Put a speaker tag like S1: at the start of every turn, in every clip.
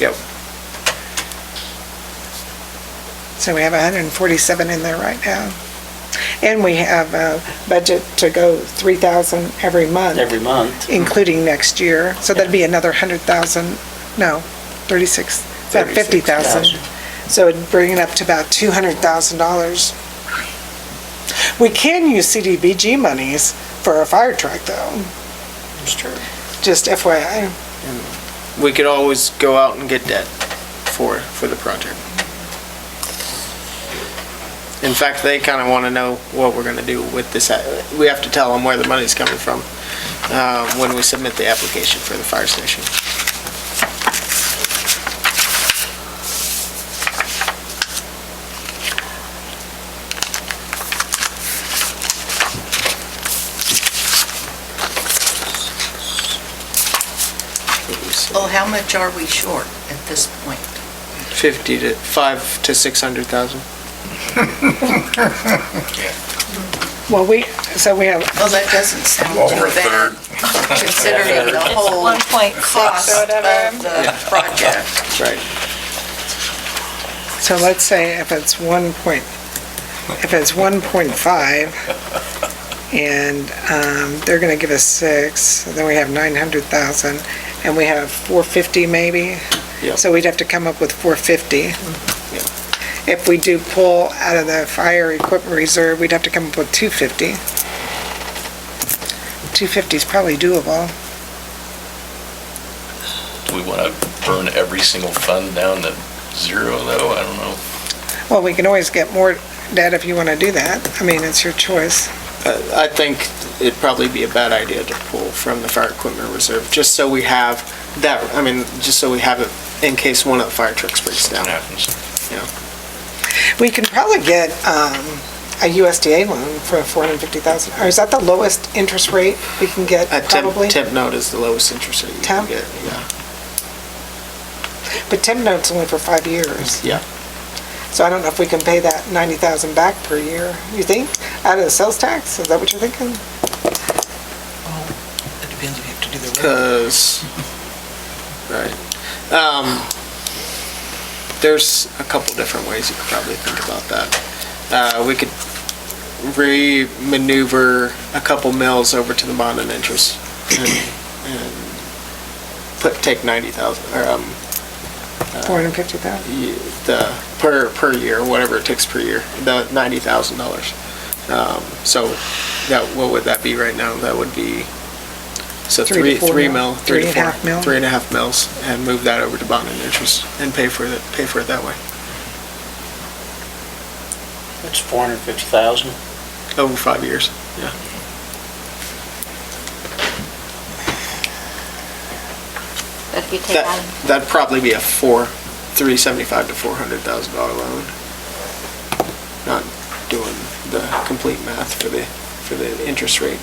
S1: Yep.
S2: So we have 147 in there right now. And we have a budget to go 3,000 every month,
S3: every month.
S2: including next year. So that'd be another 100,000, no, 36, about 50,000.
S3: 36,000.
S2: So it'd bring it up to about $200,000. We can use CDBG monies for a fire truck though,
S3: That's true.
S2: just FYI.
S1: We could always go out and get debt for, for the project. In fact, they kind of want to know what we're going to do with this. a- We have to tell them where the money's coming from uh, when we submit the application for the fire station.
S4: Well, how much are we short at this point?
S1: 50 to, 5 to 600,000.
S2: Well, we, so we have
S4: Well, that doesn't sound too bad, considering the whole
S5: One point
S4: cost
S5: six or
S4: of
S5: whatever.
S4: the project.
S1: Right.
S2: So let's say if it's one point, if it's one point five, and, um, they're gonna give us six, then we have nine hundred thousand, and we have four fifty maybe?
S1: Yep.
S2: So we'd have to come up with four fifty. If we do pull out of the fire equipment reserve, we'd have to come up with two fifty. Two fifty's probably doable.
S6: Do we want to burn every single fund down to zero, though? I don't know.
S2: Well, we can always get more debt if you wanna do that. I mean, it's your choice.
S1: Uh, I think it'd probably be a bad idea to pull from the fire equipment reserve, just so we have that, I mean, just so we have it in case one of the fire trucks breaks
S6: What
S1: down.
S6: happens?
S2: We can probably get um, a USDA loan for 450000 or is that the lowest interest rate we can get
S1: A Uh, temp,
S2: probably?
S1: temp note is the lowest interest rate you can
S2: Temp?
S1: get, yeah.
S2: But temp note's only for five years.
S1: Yeah.
S2: So I don't know if we can pay that 90000 back per year, you think, out of the sales tax? Is that what you're thinking?
S7: It depends if you have to do the road.
S1: Cause, right. Um, there's a couple different ways you could probably think about that. Uh, we could re-maneuver a couple mills over to the bond and interest and, and put, take ninety thousand, or, um,
S2: 450000
S1: y- the, per, per year, whatever it takes per year, the ninety thousand dollars. Um, so that, what would that be right now? That would be, so
S2: Three to
S1: three,
S2: four
S1: three
S2: mil.
S1: mil, three to
S2: Three and a
S1: four.
S2: half mil.
S1: Three and a half mils and move that over to bond and interest and pay for it, pay for it that way.
S3: That's 450,000.
S1: Over five years, yeah.
S5: But if you take out,
S1: That, that'd probably be a four, three seventy-five to four hundred thousand dollar loan. Not doing the complete math for the, for the interest rate.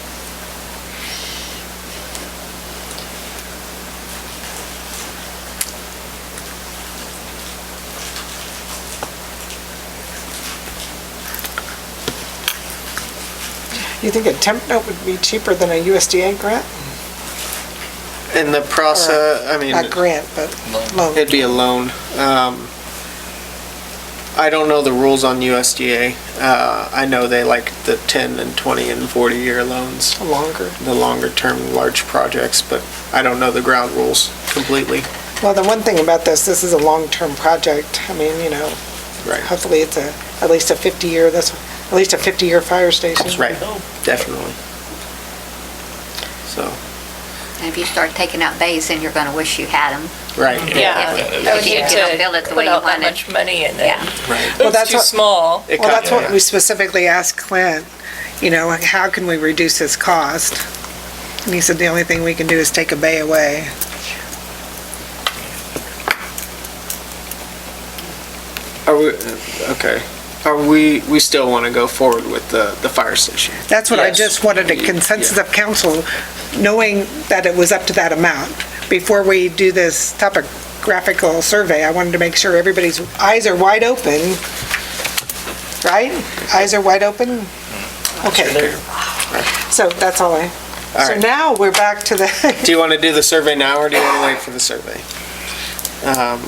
S2: You think a temp note would be cheaper than a USDA grant?
S1: In the process, I mean.
S2: Not grant, but loan.
S1: It'd be a loan. Um, I don't know the rules on USDA. Uh, I know they like the 10 and 20 and 40-year loans,
S2: Longer.
S1: the longer-term large projects, but I don't know the ground rules completely.
S2: Well, the one thing about this, this is a long-term project. I mean, you know,
S1: Right.
S2: hopefully it's a, at least a 50-year, that's, at least a 50-year fire station.
S1: Right, definitely. So,
S5: and if you start taking out bays, then you're gonna wish you had them.
S1: right.
S6: Yeah.
S5: If if you don't build it the way you
S7: Put out that
S5: want it.
S7: much money in
S5: Yeah.
S7: it.
S1: Right.
S2: Well, that's
S7: It's too
S2: what-
S7: small.
S1: It
S2: Well,
S1: cut-
S2: that's what we specifically asked Clint, you know, like, how can we reduce this cost? And he said the only thing we can do is take a bay away.
S1: Are we, okay. Are we, we still want to go forward with the, the fire station?
S2: That's what I
S1: Yes.
S2: just wanted a consensus of council, knowing that it was up to that amount. Before we do this topographical survey, I wanted to make sure everybody's eyes are wide open, right? Eyes are wide open? Okay, so that's all I,
S1: Mm. All
S2: so
S1: right.
S2: now we're back to the,
S1: Do you want to do the survey now, or do you want to wait for the survey? Um,